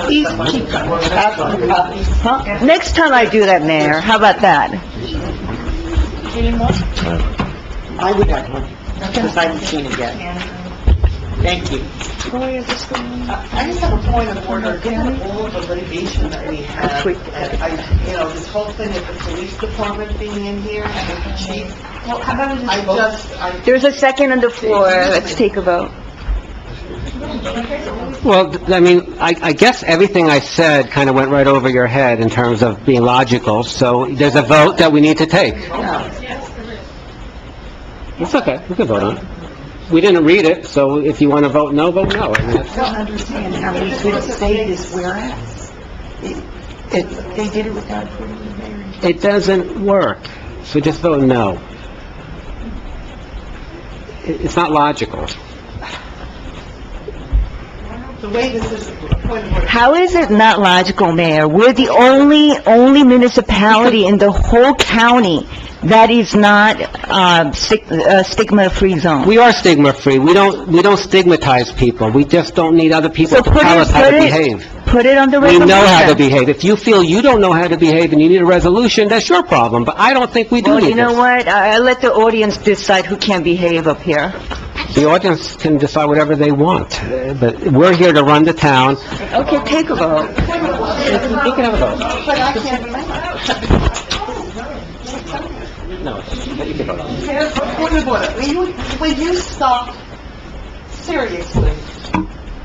please keep up, up, huh? Next time I do that, Mayor, how about that? I would have one, because I haven't seen it yet. Thank you. I just have a point of order, given all of the litigation that we have, and I, you know, this whole thing with the police department being in here, and with the chief, Well, how about we I just vote? just, I, There's a second on the floor, let's take a vote. Well, th- I mean, I, I guess everything I said kind of went right over your head in terms of being logical, so there's a vote that we need to take. It's okay, we can vote on it. We didn't read it, so if you want to vote no, vote no. I mean, it's- don't understand how we could say this whereas. It- it- They did it without approving the mayor. It doesn't work, so just vote no. It- It's not logical. the way this is, point of order, How is it not logical, Mayor? We're the only, only municipality in the whole county that is not, um, stig- uh, stigma-free zone. We are stigma-free, we don't, we don't stigmatize people, we just don't need other people So to put tell it, us how put to it, behave. put it on the We resolution. know how to behave. If you feel you don't know how to behave and you need a resolution, that's your problem, but I don't think we do Well, you need know this. what? I, I let the audience decide who can behave up here. The audience can decide whatever they want, uh, but we're here to run the town. Okay, take a vote. You can have a vote. but I can't remember. No, you can vote on it. Point of order, will you, will you stop, seriously,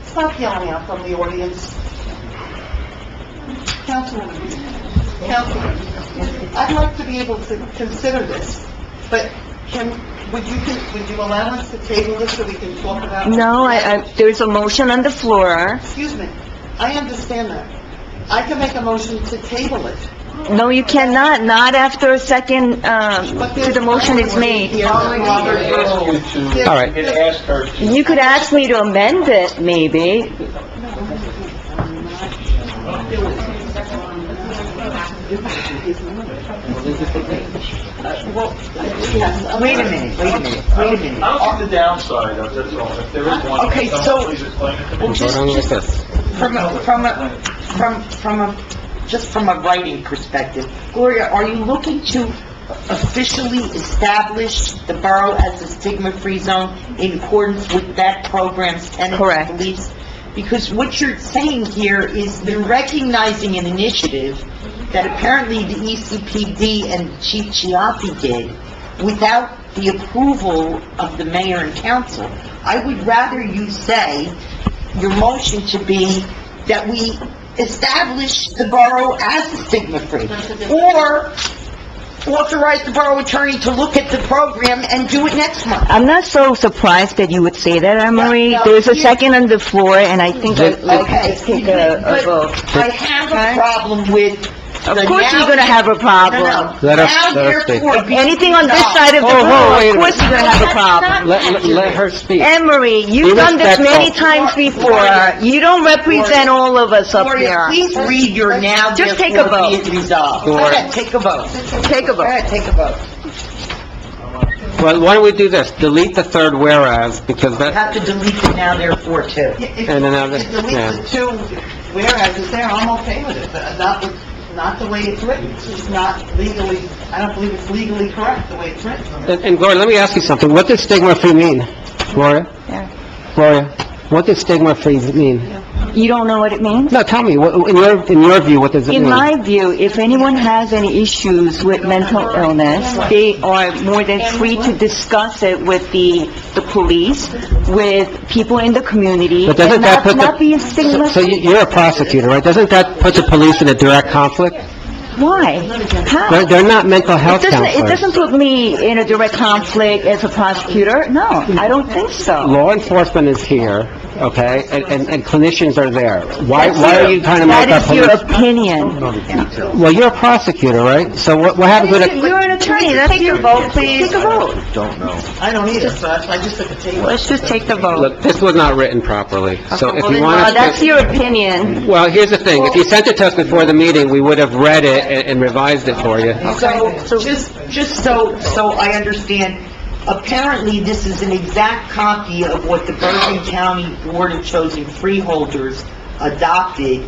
stop yelling out from the audience? Councilwoman, Councilwoman, I'd like to be able to consider this, but can, would you, would you allow us to table this so we can talk about? it? No, I, I, there's a motion on the floor. Excuse me, I understand that. I can make a motion to table it, No, you cannot, not after a second, um, but to there's... the motion is made. Here, Robert, you to, All right. and ask her to You could ask me to amend it, maybe. Wait a minute, wait a minute, wait a minute. I'll see the downside of this, all, if there is one. Okay, someone so- Please explain it to me. Well, Vote just, on it like just this. from a, from a, from, from a, just from a writing perspective, Gloria, are you looking to officially establish the borough as a stigma-free zone in accordance with that program's tenets Correct. and beliefs? Because what you're saying here is you're recognizing an initiative that apparently the E ECPD and Chief Chiappi did without the approval of the mayor and council. I would rather you say your motion to be that we establish the borough as a stigma-free, or authorize the borough attorney to look at the program and do it next month. I'm not so surprised that you would say that, Anne Marie. There's a second on the floor, and I think I- I could Okay, just take a, a but vote. I have Okay. a problem with the Of course you're now- gonna have a No, problem. no. Let us- Now let us speak. therefore be- Anything on this side of the Oh, whoa, room, wait of a course you're minute. gonna have a problem. Let, let- let her speak. Anne Marie, you've Be done this many respectful. times before. You don't represent all of us up Gloria, here. please read your now Just take a therefore be vote. it resolved. Go Gloria. ahead, take a vote. Take a Go vote. ahead, take a vote. Well, why don't we do this? Delete the third whereas, because You that, have to delete it now therefore too. and then have If it, you delete yeah. the two whereas is there, I'm okay with it, but not, with- not the way it's written. It's just not legally, I don't believe it's legally correct, the way it's written. And and Gloria, let me ask you something. What does stigma-free mean? Gloria? Yeah. Gloria, what does stigma-free mean? You don't know what it means? No, tell me, what- in your, in your view, what does it mean? In my view, if anyone has any issues with mental illness, they are more than free to discuss it with the, the police, with people in the community, But doesn't and not, that put the... not be So- So stigmatized. you- you're a prosecutor, right? Doesn't that put the police in a direct conflict? Why? How? They're It they're not mental health doesn't, it counselors. doesn't put me in a direct conflict as a prosecutor. No, I don't think so. Law enforcement is here, okay, and- and and clinicians are there. Why Why are you trying to make That up is your police? opinion. Well, you're a prosecutor, right? So what what happens with a... You're an attorney, that's your vote, please. Take a vote. I don't either, so that's why I just took a table. Let's just take the vote. Look, this was not written properly, so if you want Uh, us that's to... your opinion. Well, here's the thing, if you sent it to us before the meeting, we would have read it and and revised it for you. So, just, just so, so I understand, apparently this is an exact copy of what the Bergen County Board of Chosen Freeholders adopted